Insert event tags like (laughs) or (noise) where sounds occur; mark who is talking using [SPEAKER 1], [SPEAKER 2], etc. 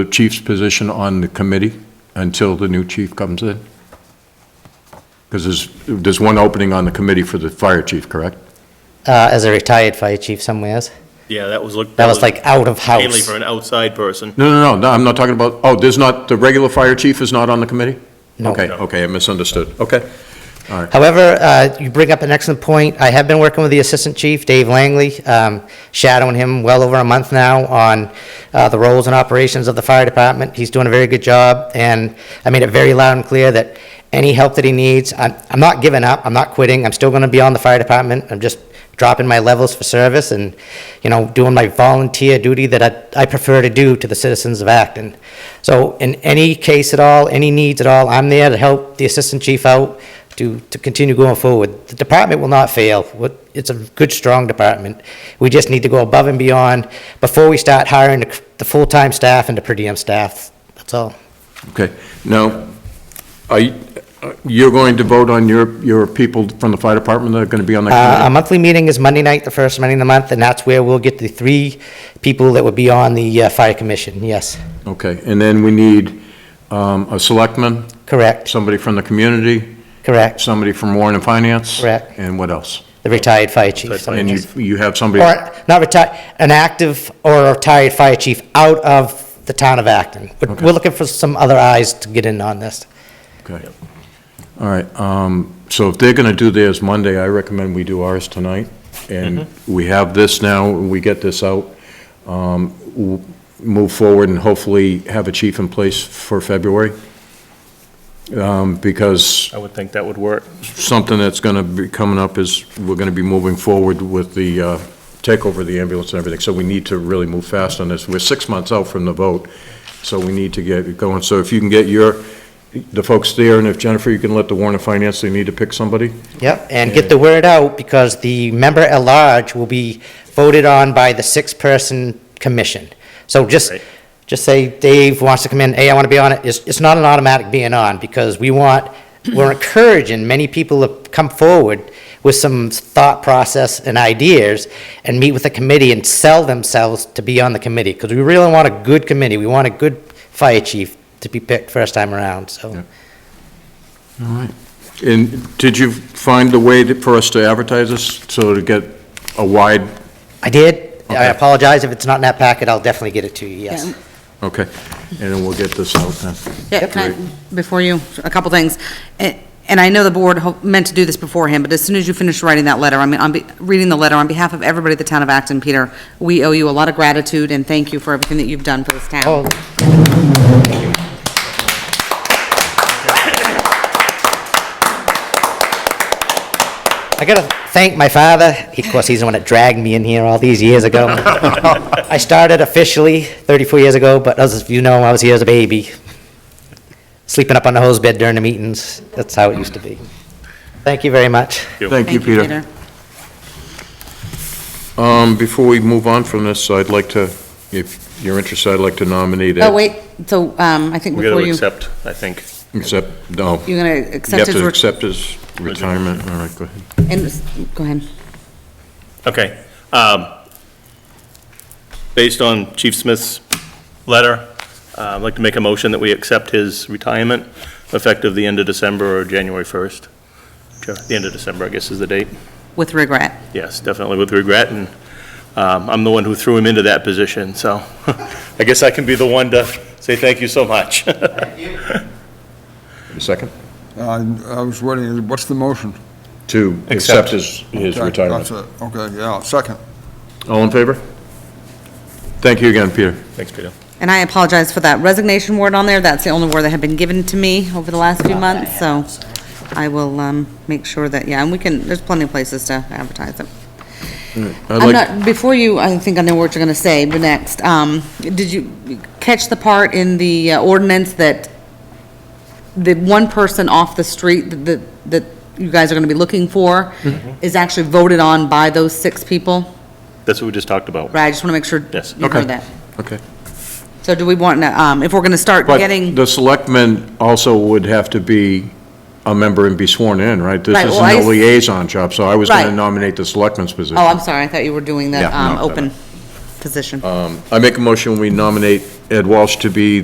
[SPEAKER 1] the chief's position on the committee until the new chief comes in? Because there's, there's one opening on the committee for the fire chief, correct?
[SPEAKER 2] uh, as a retired fire chief somewhere. else.
[SPEAKER 3] Yeah, that was looked.
[SPEAKER 2] That was like out of
[SPEAKER 3] Mainly
[SPEAKER 2] house.
[SPEAKER 3] for an outside person.
[SPEAKER 1] No, no, no, no, I'm not talking about, oh, there's not, the regular fire chief is not on the committee?
[SPEAKER 2] No.
[SPEAKER 1] Okay, okay, I misunderstood, okay.
[SPEAKER 2] However, uh, you bring up an excellent point. I have been working with the assistant chief, Dave Langley, um, shadowing him well over a month now on uh, the roles and operations of the fire department. He's doing a very good job, and I made it very loud and clear that any help that he needs, I'm I'm not giving up, I'm not quitting, I'm still going to be on the fire department, I'm just dropping my levels for service and, you know, doing my volunteer duty that I I prefer to do to the citizens of Acton. So in any case at all, any needs at all, I'm there to help the assistant chief out, to, to continue going forward. The department will not fail. What- It's a good, strong department. We just need to go above and beyond before we start hiring the, the full-time staff and the per diem staff. That's all.
[SPEAKER 1] Okay, now, are, you- you're going to vote on your, your people from the fire department that are going to be on that
[SPEAKER 2] Uh,
[SPEAKER 1] committee?
[SPEAKER 2] our monthly meeting is Monday night, the first Monday of the month, and that's where we'll get the three people that would be on the uh, fire commission. Yes,
[SPEAKER 1] Okay, and then we need um, a selectman,
[SPEAKER 2] correct,
[SPEAKER 1] somebody from the community,
[SPEAKER 2] correct.
[SPEAKER 1] somebody from Warren and Finance.
[SPEAKER 2] Correct.
[SPEAKER 1] And what else?
[SPEAKER 2] The retired fire chief.
[SPEAKER 1] And you, you have somebody,
[SPEAKER 2] Or, not retired, an active or retired fire chief out of the town of Acton. We're-
[SPEAKER 1] Okay.
[SPEAKER 2] We're looking for some other eyes to get in on this.
[SPEAKER 1] okay. All right, um, so if they're gonna do theirs Monday, I recommend we do ours tonight. And we have this now, we get this out, um, w- move forward and hopefully have a chief in place for February. Um, because
[SPEAKER 3] I would think that would work.
[SPEAKER 1] something that's going to be coming up is, we're going to be moving forward with the uh, takeover of the ambulance and everything, so we need to really move fast on this. We're six months out from the vote, so we need to get it going. So if you can get your, the folks there, and if Jennifer, you can let the Warren of Finance, they need to pick somebody?
[SPEAKER 2] Yep, and get the word out, because the member at large will be voted on by the six-person commission. So just,
[SPEAKER 3] Right.
[SPEAKER 2] just say Dave wants to come in, hey, I want to be on it, it's, it's not an automatic being on, because we want, we're encouraging many people to come forward with some thought process and ideas, and meet with the committee and sell themselves to be on the committee, because we really want a good committee, we want a good fire chief to be picked first time around, so.
[SPEAKER 1] All right. And did you find a way to- for us to advertise this, so to get a wide,
[SPEAKER 2] I did, I
[SPEAKER 1] Okay.
[SPEAKER 2] apologize if it's not in that packet, I'll definitely get it to you, yes.
[SPEAKER 4] Yeah.
[SPEAKER 1] okay, and then we'll get this out then.
[SPEAKER 4] Yeah, can I, before you, a couple things. A- And I know the board ho- meant to do this beforehand, but as soon as you finish writing that letter, I mean, on be- reading the letter, on behalf of everybody at the town of Acton, Peter, we owe you a lot of gratitude and thank you for everything that you've done for this town.
[SPEAKER 2] Oh, I gotta thank my father. Of course, he's the one that dragged me in here all these years ago. I started officially 34 years ago, but as you know, I was here as a baby, sleeping up on the hose bed during the meetings. That's how it used to be. Thank you very much.
[SPEAKER 1] Thank you, Peter. Um, Before we move on from this, I'd like to, if you're interested, I'd like to nominate Ed.
[SPEAKER 4] Oh, wait, so, um, I think
[SPEAKER 3] We got
[SPEAKER 4] before
[SPEAKER 3] to
[SPEAKER 4] you,
[SPEAKER 3] accept, I think.
[SPEAKER 1] Accept, no.
[SPEAKER 4] you're going to
[SPEAKER 1] You
[SPEAKER 4] accept
[SPEAKER 1] have
[SPEAKER 4] his.
[SPEAKER 1] to
[SPEAKER 4] re-
[SPEAKER 1] accept his retirement, all right, go ahead.
[SPEAKER 4] and s- Go ahead.
[SPEAKER 3] Okay. um, Based on Chief Smith's letter, uh, I'd like to make a motion that we accept his retirement effective the end of December or January 1st. Sure, The end of December, I guess, is the date.
[SPEAKER 4] With regret.
[SPEAKER 3] Yes, definitely with regret, and um, I'm the one who threw him into that position, so (laughs) I guess I can be the one to say thank you so much. (laughs)
[SPEAKER 1] A Second?
[SPEAKER 5] I I was waiting, what's the motion?
[SPEAKER 1] To accept his, his
[SPEAKER 5] Okay,
[SPEAKER 1] retirement.
[SPEAKER 5] that's it. Okay, yeah, second.
[SPEAKER 1] All in favor? Thank you again, Peter.
[SPEAKER 3] Thanks, Peter.
[SPEAKER 4] And I apologize for that resignation word on there. That's the only word that had been given to me over the last few months, so I will um, make sure that, yeah, and we can, there's plenty of places to advertise it.
[SPEAKER 1] I'd
[SPEAKER 4] I'm
[SPEAKER 1] like,
[SPEAKER 4] not, before you, I think I know what you're going to say, but next, um, did you catch the part in the uh, ordinance that the one person off the street that- that, that you guys are going to be looking for
[SPEAKER 1] Mm-hmm.
[SPEAKER 4] is actually voted on by those six people?
[SPEAKER 3] That's what we just talked about.
[SPEAKER 4] Right, I just want to make sure
[SPEAKER 3] Yes.
[SPEAKER 4] you
[SPEAKER 1] Okay.
[SPEAKER 4] heard that.
[SPEAKER 1] okay.
[SPEAKER 4] So do we want, to, um, if we're going to start
[SPEAKER 1] But
[SPEAKER 4] getting,
[SPEAKER 1] the selectman also would have to be a member and be sworn in, right? This
[SPEAKER 4] Right, well, I
[SPEAKER 1] isn't a
[SPEAKER 4] s-
[SPEAKER 1] liaison job, so I was going to
[SPEAKER 4] Right.
[SPEAKER 1] nominate the selectman's position.
[SPEAKER 4] oh, I'm sorry, I thought you were doing the
[SPEAKER 1] Yeah,
[SPEAKER 4] um,
[SPEAKER 1] no, no, no.
[SPEAKER 4] open position.
[SPEAKER 1] I make a motion, we nominate Ed Walsh to be